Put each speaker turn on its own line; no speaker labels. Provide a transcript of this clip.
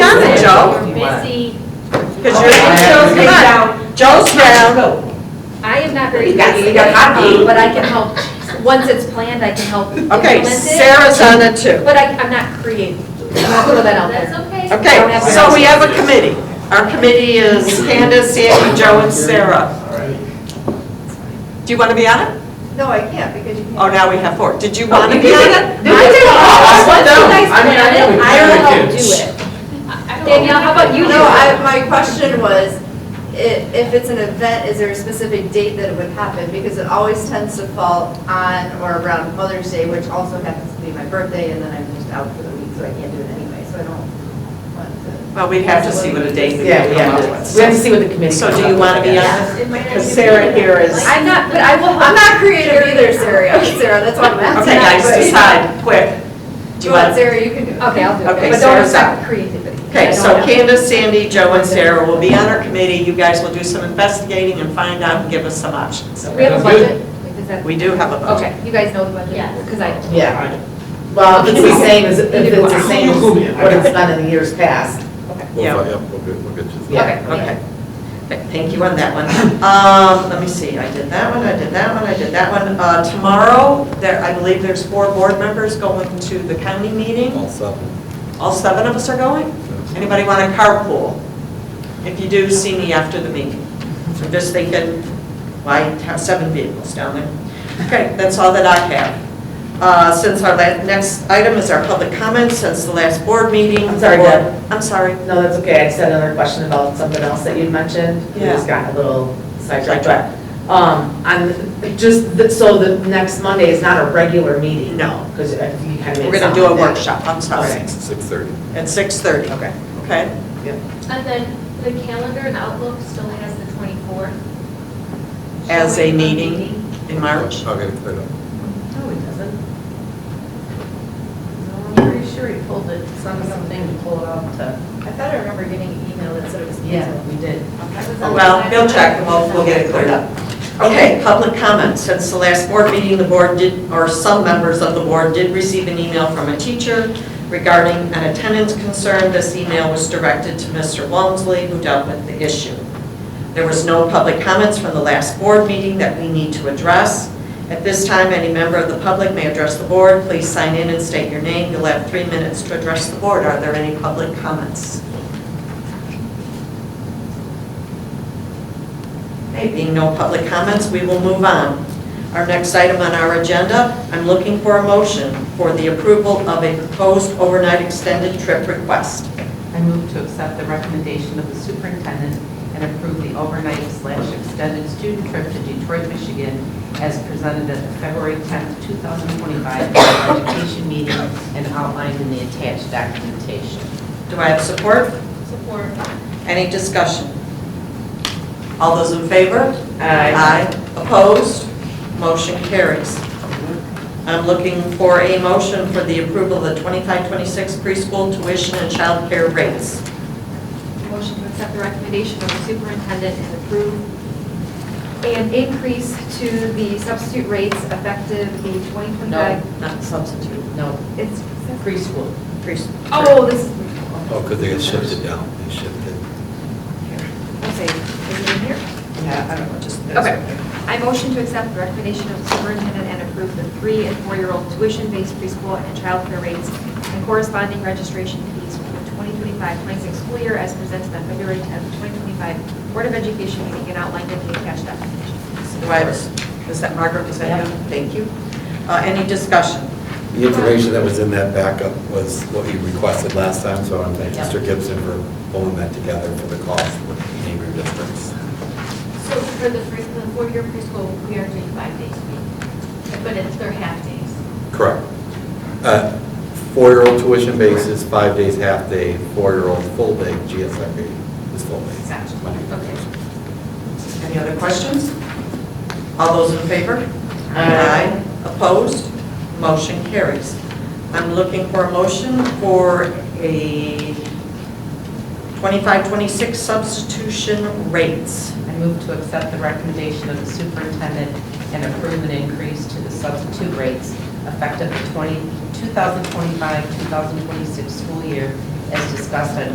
Because you're Joe's
Come on.
down, Joe's down.
I am not very
You got- you
creative,
got hot
um, but I can help, once it's planned, I can help implement
Okay,
it.
Sarah's on it too.
But I, I'm not creative, I'll put that out
That's
there.
okay.
Okay, so we have a committee. Our committee is Candace, Sandy, Joe, and Sarah. Do you want to be on it?
No, I can't because you
Oh,
can't.
now we have four. Did you want to be on it?
I did, once you guys
I mean, I
plan
know
it,
we
I
plan
will help
the
do
kids.
it. Danielle, how about you?
No, I, my question was, i- if it's an event, is there a specific date that it would happen? Because it always tends to fall on or around Mother's Day, which also happens to be my birthday, and then I'm just out for the week, so I can't do it anyway, so I don't want to.
Well, we'd have to see what a date we
Yeah, we
come
have
up
to,
with.
we have to see what the committee.
So
comes
do
up
you
with,
want to
I
be on
guess.
it? Because Sarah here is,
I'm not, but I will,
I'm
help.
not creative either, Sarah, I'm Sarah, that's why I'm asking.
okay, guys, decide, quick. Do you
Go on,
want,
Sarah, you can do it.
okay, I'll do
Okay,
it, but don't
Sarah's
affect creativity.
okay,
I
so
don't-
Candace, Sandy, Joe, and Sarah will be on our committee. You guys will do some investigating and find out and give us some options.
We have a
Sounds good.
budget? Is that-
We do have a budget.
Okay, you guys know the budget?
Yes.
Because I,
Yeah, well, if it's the same as, if it's the same as what it's done in the years past.
We'll,
Yeah.
fi- yeah, we'll get, we'll get you.
Yeah.
okay.
Okay. Okay, Thank you on that one. Um, let me see, I did that one, I did that one, I did that one. Uh, tomorrow, there, I believe there's four board members going to the county meeting.
All seven.
All seven of us are going. Anybody want a carpool? If you do, see me after the meeting. I'm just thinking, why have seven vehicles down there? Okay, that's all that I have. Uh, since our la, next item is our public comments, since the last board meeting.
I'm sorry, Deb.
I'm sorry.
No, that's okay, I just had another question about something else that you'd mentioned. We just got a little sidetracked, but, um, on, just, the- so the next Monday is not a regular meeting?
No.
Because you kind of made
We're gonna do a workshop, I'm sorry.
Okay.
Six thirty.
At 6:30.
Okay.
Okay,
And then the calendar and Outlook still has the 24th.
As a
Showing
meeting. in March?
I'll get it cleared up.
No, it doesn't.
I'm pretty sure he pulled it, some, something to pull it off to. I thought I remember getting an email that said it was canceled.
we did.
I was on
Well,
the-
we'll check, and we'll, we'll get it cleared up. Okay, public comments. Since the last board meeting, the board did, or some members of the board did receive an email from a teacher regarding an attendance concern. This email was directed to Mr. Walmsley, who dealt with the issue. There was no public comments from the last board meeting that we need to address. At this time, any member of the public may address the board. Please sign in and state your name. You'll have three minutes to address the board. Are there any public comments? Okay, being no public comments, we will move on. Our next item on our agenda, I'm looking for a motion for the approval of a proposed overnight extended trip request.
I move to accept the recommendation of the superintendent and approve the overnight slash extended student trip to Detroit, Michigan as presented at the February 10th, 2025 Board of education meeting and outlined in the attached documentation.
Do I have support?
Support.
Any discussion? All those in favor?
Aye.
Opposed? Motion carries. I'm looking for a motion for the approval of the 25-26 preschool tuition and childcare rates.
Motion to accept the recommendation of the superintendent and approve an increase to the substitute rates effective the 2025.
Not substitute,
No,
It's,
preschool.
preschool.
oh, this,
Oh, because they got shifted down, they shifted.
I'll say, is it in here?
Yeah, I don't know, just.
Okay. I motion to accept the recommendation of the superintendent and approve the three and four-year-old tuition-based preschool and childcare rates and corresponding registration fees for the 2025-26 school year as presented on February 10th, 2025 Board of Education meeting and outlined in the attached documentation.
Do I have a s- is that Margaret, is that you? Thank you. Uh, Any discussion?
The information that was in that backup was what you requested last time, so I want to thank Mr. Gibson for pulling that together for the cost with neighboring districts.
So for the first, the four-year preschool, we are doing five days a week, but it's their half days.
Correct. Uh, Four-year-old tuition basis, five days half day, four-year-old full day, GSIB is full day.
Gotcha.
Monday through
Okay.
Thursday.
Any other questions? All those in favor?
Aye.
Opposed? Motion carries. I'm looking for a motion for a 25-26 substitution rates.
I move to accept the recommendation of the superintendent and approve an increase to the substitute rates effective the 20 2025-2026 school year as discussed on